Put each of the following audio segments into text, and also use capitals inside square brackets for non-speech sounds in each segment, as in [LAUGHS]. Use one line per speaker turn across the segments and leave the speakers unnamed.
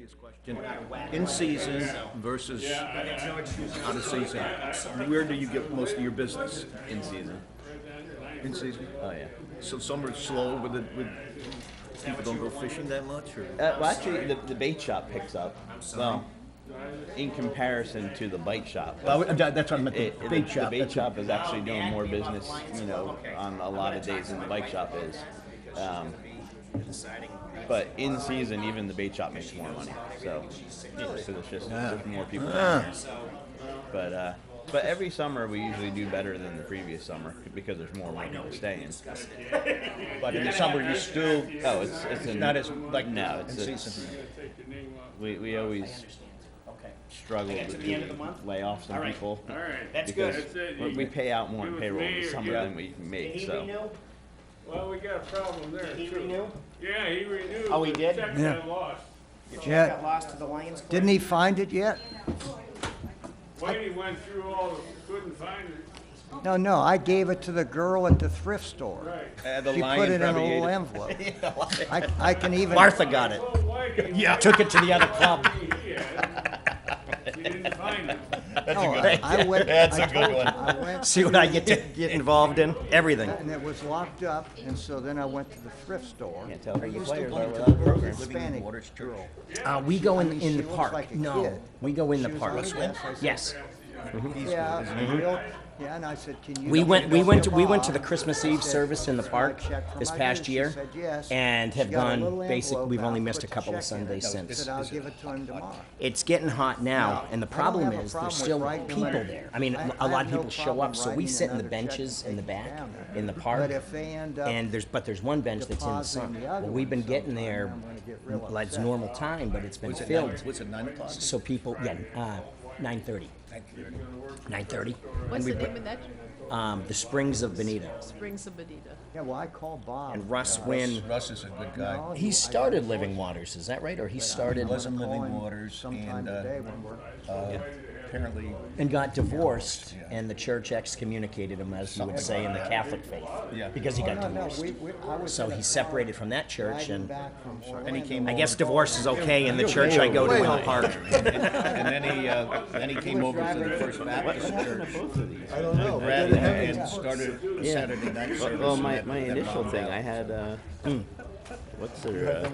his question. In season versus out of season. Where do you get most of your business?
in season.
In season.
Oh yeah.
So some are slow with it, with people don't go fishing that much or?
Uh, well, actually, the, the bait shop picks up. Well, in comparison to the bite shop,
That's what I meant,
it, it- the bait shop is actually doing more business, you know, on a lot of days than the bike shop is. Um, but in season, even the bait shop makes more money. So, because it's just there's more people. down there. But uh, but every summer we usually do better than the previous summer because there's more people staying.
But in the summer, you still,
Oh, it's it's a-
not as, like,
no, it's,
in
it's-
season.
we we always
Okay.
struggle
Okay,
to
to the end of the month?
lay off some
All right.
people.
All right.
That's
because
good.
That's it.
we- We pay out more
Do
in
it
payroll
for me
this
or
summer
get-
than we
Did
make,
he
so.
renew?
Well, we got a problem there.
He
too.
renewed?
Yeah, he renewed.
Oh, he
but
did?
check
Yeah.
got lost.
So
Yeah.
it Got lost to the Lions. Club? [LAUGHS]
Didn't he find it yet?
Whitey went through all, the couldn't find it.
No, no, I gave it to the girl at the thrift store.
Right.
the
She put it in a little envelope. I, I can even.
Martha got it.
Well, Whitey.
Yeah. Took it to [LAUGHS] the other club.
He had it. He didn't find it.
That's I went. That's a good one. I went.
See what I get to get involved in? Everything.
And it was locked up, and so then I went to the thrift store.
Can't tell who the
Still
players are
playing to
without
the
a program.
Hispanic girl.
Uh, we go in, in
She
the
looks
park.
like a
no,
kid.
we go in the
She was
park.
on the bench. I said,
Yes,
Yeah, real- yeah, and I said, can you?
we
help
went.
me
We
go
went to
the
we went to
bar?"
the Christmas
I
Eve
said,
service in the
"Can I
park
check for
this
my
past
dues?" She
year,
said, "Yes."
and
She
have
got a little
gone. Basically,
envelope
we've only
out,
missed a
put the
couple of
check in it.
Sundays since.
Said I'll give it to him tomorrow.
It's getting hot now,
No,
and the
I don't
problem
have a
is
problem
there's
with
still
writing
people
another-
there. I mean,
I-
a
I
lot of
have no
people show
problem
up, so we
writing
sit in the
another check
benches
and
in the
taking it
back
down there.
in the park,
But if they end up
and there's but there's one bench that's in the sun.
depositing the other
Well, we've been
one
getting
sometime,
there
I'm gonna get real
like it's
upset.
normal time, but it's been
What's it,
filled.
nine- what's it, nine o'clock?
So people, yeah, uh, nine thirty. Nine thirty.
What's the name of that?
Um, the Springs of Benita.
Springs of Bonita.
Yeah, well, I called Bob.
And Russ Wynn.
Russ is a good guy.
No,
He
I-
started Living Waters, is that right? Or he started
Wasn't
Calling
Living Waters
Sometime
and, uh,
today when we're.
uh, apparently,
and got divorced,
Yeah.
and the church excommunicated him, as you would say in the Catholic faith,
Yeah.
because he got
No, no,
divorced.
we- we- I was
So
in a
he
car
separated from that church,
riding
and
back from
and he
Orlando.
came
I
over-
guess divorce is okay in the church I go to in the park.
And then he, uh, then he came over to the First Baptist Church.
I don't know.
Brad and started a
Yeah.
Saturday night service.
Well, my,
and
my
that
initial
brought
thing,
out.
I had, uh, what's their, uh,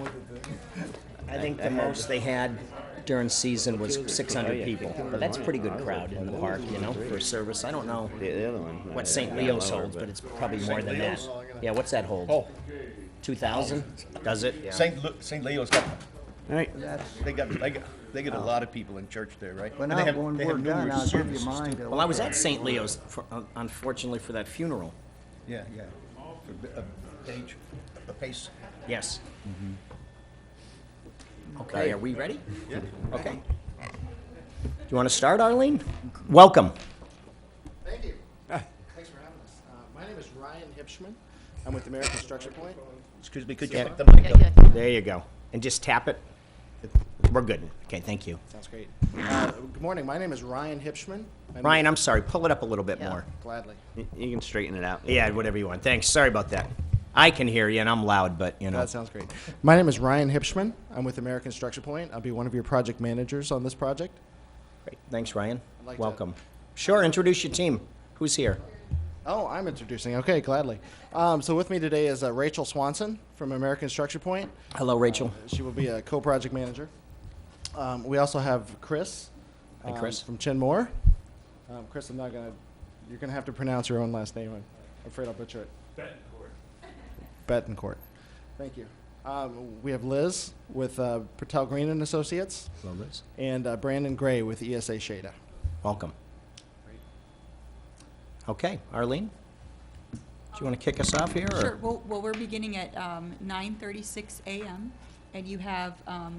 I think the most they had during season was 600 people. But that's a pretty good crowd in the park, you know, for a service. I don't know
the, the other one?
what
uh,
St.
yeah,
Leo's
lower,
holds, but it's probably more than that. Yeah, what's that hold?
Oh,
2,000? Does it?
St. Lu- St. Leo's got,
All right,
they got, they got, they get a
Oh.
lot of people in church there, right?
When
And they
I,
have-
when
they
we're
have
done,
numerous
I'll give you
services,
mine.
too.
to
Well, I
look
was
at.
at St. Leo's, for, un- unfortunately, for that funeral.
Yeah, yeah. For b- a page, a pace.
Yes. Okay, are we ready?
Yeah.
Okay. Do you want to start, Arlene? Welcome.
Thank you. Thanks for having us. Uh, my name is Ryan Hipshman. I'm with American Structure Point.
Excuse me, could you pick the mic
Yeah,
up?
yeah.
There you go. And just tap it. We're good. Okay, thank you.
Sounds great. Uh, good morning. My name is Ryan Hipshman. I'm
Ryan, I'm sorry. Pull it up a little bit
Yeah.
more.
Gladly.
you you can straighten it out.
Yeah, whatever you want. Thanks. Sorry about that. I can hear you, and I'm loud, but you know.
That sounds great. My name is Ryan Hipshman. I'm with American Structure Point. I'll be one of your project managers on this project.
Great. Thanks, Ryan.
I'd like to-
Welcome. Sure. Introduce your team. Who's here?
Oh, I'm introducing. Okay, gladly. Um, so with me today is uh, Rachel Swanson from American Structure Point.
Hello, Rachel.
Uh, She will be a co-project manager. Um, we also have Chris.
Hi,
um,
Chris.
From Chin Moore. Um, Chris, I'm not gonna. You're gonna have to pronounce your own last name. I'm afraid I'll butcher it. Betancourt. Thank you. Um, we have Liz with uh, Patel Green and Associates,
Hello, Liz.
and uh, Brandon Gray with ESA Shada.
Welcome. Okay, Arlene? Do you want to kick us off here? or-
Sure, well, well, we're beginning at um, 9:36 a.m., and you have um,